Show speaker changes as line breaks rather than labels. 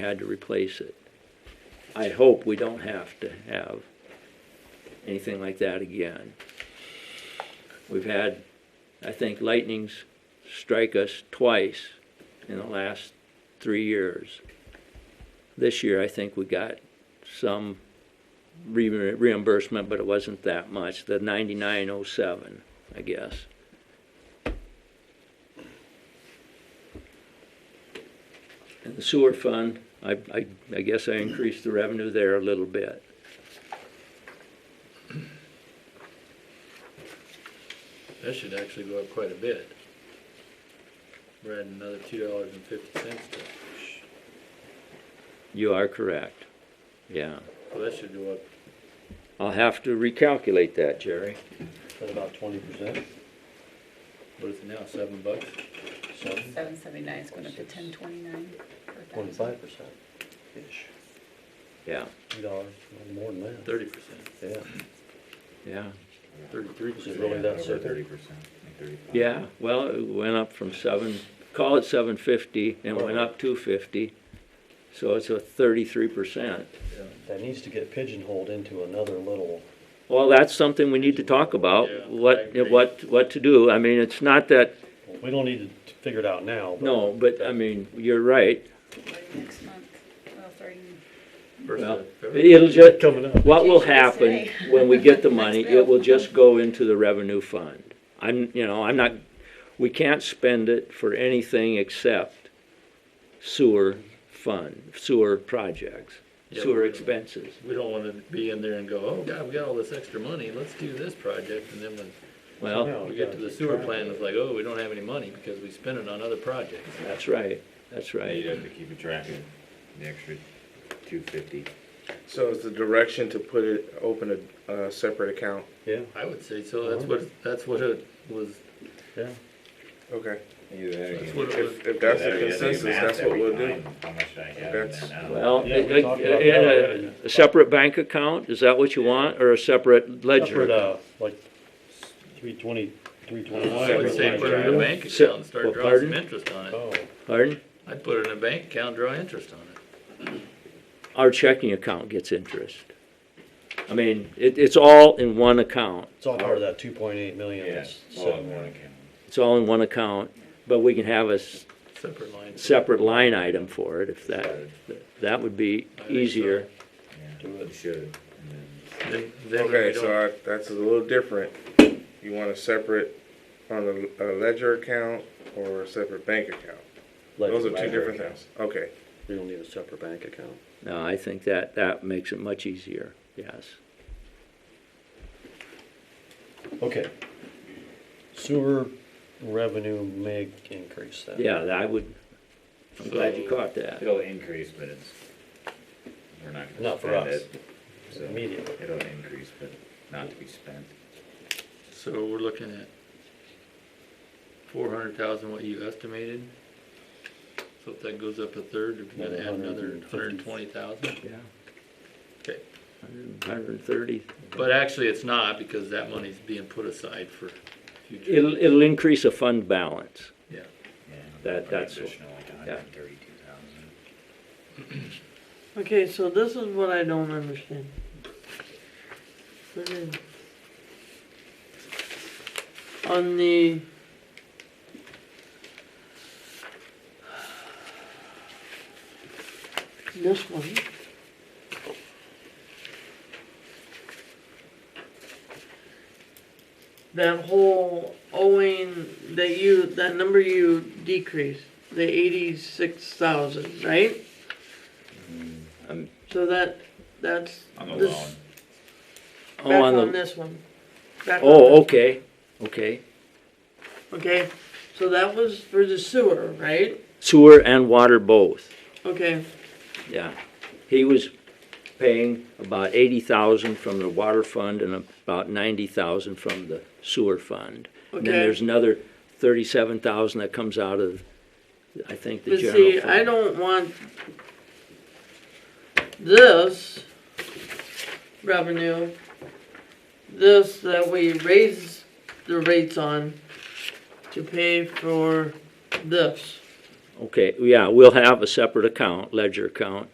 had to replace it. I hope we don't have to have anything like that again. We've had, I think, lightnings strike us twice in the last three years. This year, I think we got some re- reimbursement, but it wasn't that much, the ninety-nine oh seven, I guess. And the sewer fund, I, I, I guess I increased the revenue there a little bit.
That should actually go up quite a bit. We're adding another two dollars and fifty cents to,
You are correct. Yeah.
so that should go up.
I'll have to recalculate that, Jerry.
At about twenty percent? What is it now, seven bucks? Seven?
Seven seventy-nine is going up to ten twenty-nine.
Twenty-five percent ish,
Yeah,
two dollars, more than that,
Thirty percent,
yeah.
yeah.
thirty-three
Is it
percent.
really that
Thirty
simple?
percent, thirty-five.
Yeah, well, it went up from seven, call it seven fifty, and it went up two fifty. So it's a thirty-three percent.
That needs to get pigeonholed into another little,
Well, that's something we need to talk about,
Yeah, I
what,
agree.
what, what to do. I mean, it's not that,
we don't need to figure it out now, but.
no, but I mean, you're right.
Next month, well, starting
Well,
Well,
It'll just,
Coming up.
What will
Change it to
happen
say.
when we get the money,
Next bill.
it will just go into the revenue fund. I'm, you know, I'm not, we can't spend it for anything except sewer fund, sewer projects,
Yeah,
sewer
we-
expenses.
We don't wanna be in there and go, oh, God, we got all this extra money, let's do this project, and then when
Well,
No,
we get to the sewer
yeah.
plant, it's like, oh, we don't have any money because we spent it on other projects.
that's right, that's
You'd
right.
have to keep a track of the extra two fifty.
So is the direction to put it, open a, a separate account?
Yeah,
I would say so, that's what, that's what it was,
yeah,
Okay.
Either that
that's
or.
what it was.
If, if that's the consensus, that's what we'll do.
How much I have in
That's-
that now.
Well, uh,
Yeah, we
in
talked about that already.
a, a separate bank account, is that what you want, or a separate ledger?
separate, uh, like, three twenty, three twenty-nine.
I would say put it in a bank
So-
account and
well,
start drawing
pardon?
some interest on it.
Oh,
Pardon?
I'd put it in a bank account, draw interest on it.
Our checking account gets interest. I mean, it, it's all in one account.
it's all part of that two point eight million.
Yeah,
that's
all
sitting
in one
there.
account.
It's all in one account, but we can have a s-
Separate line.
separate line item for it if that, that would be
I think so.
easier.
Yeah, you should. and then-
Then, then we
Okay,
don't-
so I, that's a little different. You want a separate on a, a ledger account or a separate bank account?
Like,
Those are two
ledger
different
account.
things. Okay.
We don't need a separate bank account.
No, I think that, that makes it much easier, yes.
Okay. Sewer revenue may increase then.
Yeah, that would, I'm glad you caught that.
It'll increase, but it's, we're not gonna
Not for
spend
us.
it. so
Immediately.
It'll increase, but not to be spent.
So we're looking at four hundred thousand, what you estimated? So if that goes up a third, we're gonna add another hundred and twenty thousand?
Yeah.
Okay.
Hundred and thirty.
But actually, it's not, because that money's being put aside for future,
It'll, it'll increase a fund balance.
yeah.
Yeah,
That-
probably
that's what-
Additional like a hundred and thirty-two thousand.
Okay, so this is what I don't understand. This is- On the. This one. That whole owing that you, that number you decreased, the eighty-six thousand, right?
Um,
So that, that's.
Mm-hmm. On the
this-
loan,
Oh,
Back
on
on
the-
this one. Back on
Oh,
this-
okay, okay.
Okay, so that was for the sewer, right?
Sewer and water both,
Okay,
yeah. He was paying about eighty thousand from the water fund and about ninety thousand from the sewer fund. And then
Okay.
there's another thirty-seven thousand that comes out of, I think, the
but
general
see,
fund.
I don't want this revenue, this that we raise the rates on to pay for this.
Okay, yeah, we'll have a separate account, ledger account,